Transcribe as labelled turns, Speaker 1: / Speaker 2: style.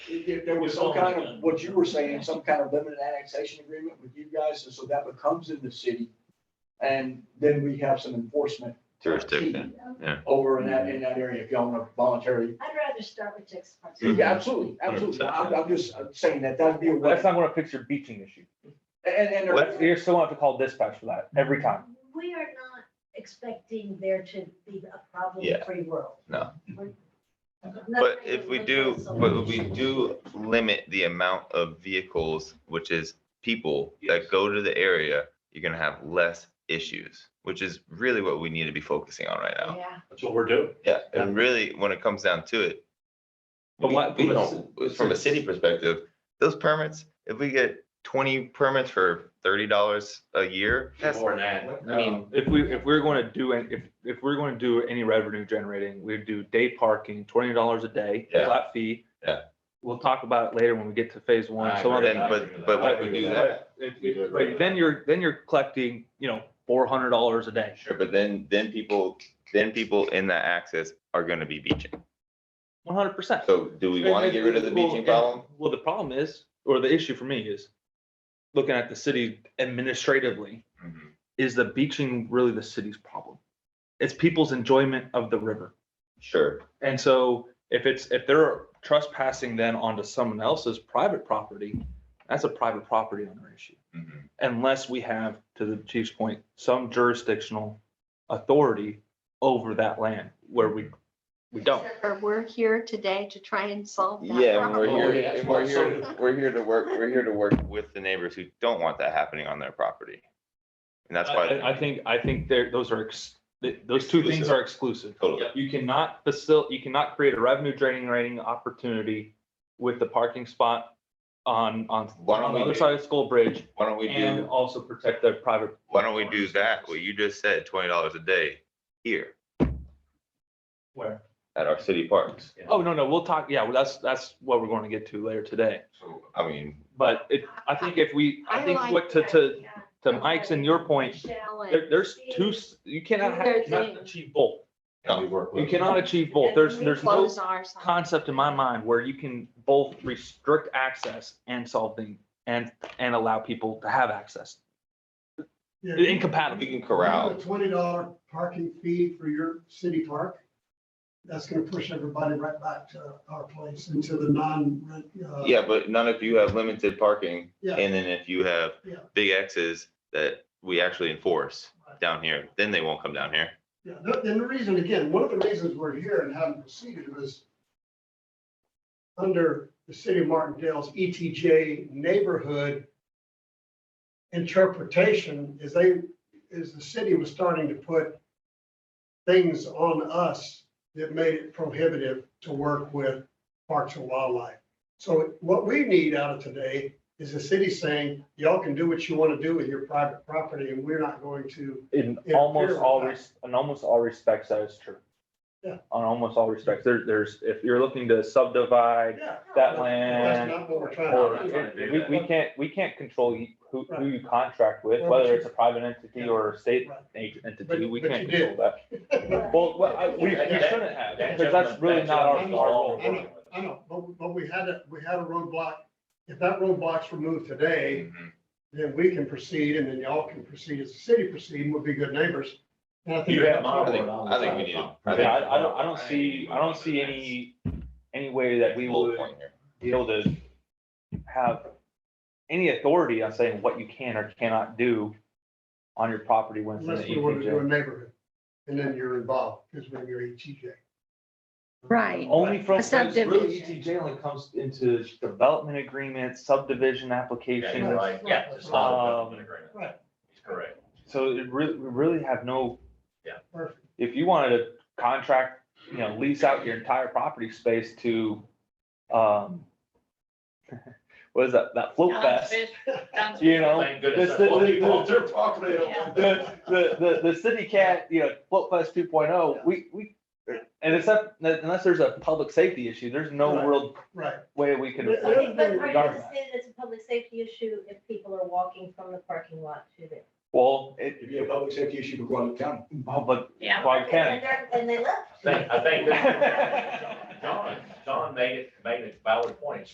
Speaker 1: There, there was some kind of, what you were saying, some kind of limited annexation agreement with you guys, and so that becomes in the city. And then we have some enforcement
Speaker 2: jurisdiction.
Speaker 1: over in that, in that area, if y'all want to voluntarily.
Speaker 3: I'd rather start with six months.
Speaker 1: Yeah, absolutely, absolutely. I'm, I'm just saying that, that'd be a way.
Speaker 4: That's not gonna fix your beaching issue.
Speaker 1: And, and. there-
Speaker 4: That's, you're still gonna have to call dispatch for that every time.
Speaker 3: We are not expecting there to be a
Speaker 2: Yeah.
Speaker 3: problem-free world.
Speaker 2: No.
Speaker 3: We're-
Speaker 2: But
Speaker 3: nothing
Speaker 2: if we
Speaker 3: is
Speaker 2: do,
Speaker 3: a
Speaker 2: but if we
Speaker 3: solution.
Speaker 2: do limit the amount of vehicles, which is people that
Speaker 5: Yes.
Speaker 2: go to the area, you're gonna have less issues, which is really what we need to be focusing on right now.
Speaker 3: Yeah,
Speaker 5: That's what we're doing.
Speaker 2: Yeah, and really, when it comes down to it,
Speaker 6: But
Speaker 2: we
Speaker 6: what-
Speaker 2: we
Speaker 6: but
Speaker 2: don't, from a city perspective, those permits, if we get twenty permits for thirty dollars a year, that's,
Speaker 5: More than that.
Speaker 2: I mean,
Speaker 4: um, If we, if we're gonna do, an- if, if we're gonna do any revenue generating, we'd do day parking, twenty dollars a day,
Speaker 2: Yeah.
Speaker 4: flat fee.
Speaker 2: Yeah.
Speaker 4: We'll talk about it later when we get to phase one,
Speaker 5: I
Speaker 4: some of
Speaker 5: agree.
Speaker 2: then,
Speaker 4: that.
Speaker 2: uh, but, but when we do that,
Speaker 4: It-
Speaker 5: We do
Speaker 4: it-
Speaker 5: it right
Speaker 4: But then you're, then you're collecting, you know, four hundred dollars a day.
Speaker 2: sure, but then, then people, then people in that access are gonna be beaching.
Speaker 4: One hundred percent.
Speaker 2: So do we want to get rid of the beaching problem?
Speaker 4: Well, the problem is, or the issue for me is, looking at the city administratively,
Speaker 2: Mm-hmm.
Speaker 4: is the beaching really the city's problem? It's people's enjoyment of the river.
Speaker 2: Sure,
Speaker 4: And so if it's, if they're trespassing then onto someone else's private property, that's a private property owner issue.
Speaker 2: Mhm.
Speaker 4: Mm-hmm. Unless we have, to the chief's point, some jurisdictional authority over that land where we, we don't.
Speaker 7: Or we're here today to try and solve that.
Speaker 2: yeah, and we're
Speaker 1: Oh,
Speaker 2: here,
Speaker 7: problem.
Speaker 1: yeah.
Speaker 2: and we're here, we're here to work, we're here to work with the neighbors who don't want that happening on their property. And that's
Speaker 4: I, I
Speaker 2: why,
Speaker 4: think, I think there, those are, ex- th- those two things
Speaker 2: Exclusive.
Speaker 4: are exclusive.
Speaker 2: totally,
Speaker 4: You cannot facil, you cannot create a revenue generating opportunity with the parking spot on, on,
Speaker 2: Why don't
Speaker 4: on the
Speaker 2: we
Speaker 4: other
Speaker 2: do-
Speaker 4: side of School Bridge
Speaker 2: why don't we
Speaker 4: and
Speaker 2: do,
Speaker 4: also protect the private.
Speaker 2: why don't we do that, what you just said, twenty dollars a day here
Speaker 4: Where?
Speaker 2: at our city parks?
Speaker 4: Oh, no, no, we'll talk, yeah, well, that's, that's what we're going to get to later today.
Speaker 2: So, I mean,
Speaker 4: But it, I think if we, I
Speaker 7: I
Speaker 4: think
Speaker 7: like
Speaker 4: what to,
Speaker 3: that,
Speaker 4: to,
Speaker 3: yeah.
Speaker 4: to Mike's and your point,
Speaker 3: Shall
Speaker 4: there, there's two, s- you cannot, have-
Speaker 7: There's
Speaker 4: you cannot
Speaker 7: a-
Speaker 4: achieve both.
Speaker 5: And we work with-
Speaker 4: You cannot achieve both. There's, there's no
Speaker 7: Close ours. off.
Speaker 4: concept in my mind where you can both restrict access and solving and, and allow people to have access.
Speaker 8: Yeah.
Speaker 2: we
Speaker 4: Incompatible.
Speaker 2: can corral,
Speaker 8: A Twenty dollar parking fee for your city park. That's gonna push everybody right back to our place into the non-rent. uh,
Speaker 2: yeah, but none of you have limited parking.
Speaker 8: Yeah,
Speaker 2: And then if you have
Speaker 8: Yeah.
Speaker 2: big X's that we actually enforce down here, then they won't come down here.
Speaker 8: yeah. The- And the reason, again, one of the reasons we're here and haven't proceeded was under the city of Martindale's ETJ neighborhood interpretation is they, is the city was starting to put things on us that made it prohibitive to work with parks and wildlife. So what we need out of today is the city saying, y'all can do what you want to do with your private property and we're not going to.
Speaker 4: In
Speaker 8: Yeah,
Speaker 4: almost
Speaker 8: here.
Speaker 4: all, res- in almost all respects, that is true.
Speaker 8: Yeah.
Speaker 4: On almost all respects, there, there's, if you're looking to subdivide
Speaker 8: Yeah.
Speaker 4: that
Speaker 8: That's
Speaker 4: land.
Speaker 8: not what we're trying
Speaker 4: or-
Speaker 8: to
Speaker 5: Right.
Speaker 8: do.
Speaker 4: We, we can't, we can't control who, who you contract with,
Speaker 8: Right.
Speaker 4: whether it's a private entity
Speaker 8: Yeah.
Speaker 4: or a state
Speaker 8: Right.
Speaker 4: entity,
Speaker 8: But-
Speaker 4: we
Speaker 8: but
Speaker 4: can't
Speaker 8: you
Speaker 4: control
Speaker 8: did.
Speaker 4: that. Well, well, I- we, we
Speaker 5: That-
Speaker 4: shouldn't
Speaker 5: that-
Speaker 4: have, because that's really not our, our
Speaker 8: gentleman-
Speaker 4: role.
Speaker 8: I know, I know, but, but we had a, we had a roadblock. If that roadblock's removed today, then we can proceed and then y'all can proceed as a city proceed and we'll be good neighbors. And I think
Speaker 5: You have
Speaker 8: that's
Speaker 5: my
Speaker 8: what
Speaker 2: I
Speaker 8: we're
Speaker 2: think, I think we need. to- I think-
Speaker 4: Yeah, I, I don't, I don't see, I don't see any, any way that we will
Speaker 2: Bullet point here.
Speaker 4: be able to have any authority on saying what you can or cannot do on your property when it's in the E
Speaker 8: Unless we want to do a
Speaker 4: ETJ.
Speaker 8: neighborhood, and then you're involved, because when you're E ETJ.
Speaker 7: Right.
Speaker 4: Only from,
Speaker 7: A
Speaker 4: really E
Speaker 7: subdivision.
Speaker 4: ETJ only comes into development agreements, subdivision
Speaker 5: Yeah, you're
Speaker 4: applications.
Speaker 5: right. Yeah, it's not a
Speaker 4: Um,
Speaker 5: development agreement.
Speaker 8: Right.
Speaker 5: He's correct.
Speaker 4: So it really, we really have no.
Speaker 5: Yeah.
Speaker 8: Perfect.
Speaker 4: If you wanted to contract, you know, lease out your entire property space to, um, what is that, that float fest? You know,
Speaker 5: Thank goodness.
Speaker 4: this-
Speaker 5: that's what
Speaker 4: this-
Speaker 5: people want.
Speaker 4: this-
Speaker 5: They're property owners.
Speaker 4: the, the, the, the city cat, you know, float fest two oh, we, we, and except, unless there's a public safety issue, there's no
Speaker 8: Right.
Speaker 4: real
Speaker 8: Right.
Speaker 4: way we can.
Speaker 8: But-
Speaker 4: enforce it.
Speaker 8: There's no
Speaker 3: But are you
Speaker 4: regard
Speaker 3: gonna say it's a public safety issue if people are walking from the parking lot to the?
Speaker 4: Well, it,
Speaker 1: It'd be a public safety issue for Guadalupe County.
Speaker 4: public,
Speaker 9: Yeah.
Speaker 4: well, can,
Speaker 3: And they're- And they left.
Speaker 5: I think, I think that John, John made it, made a valid point. It's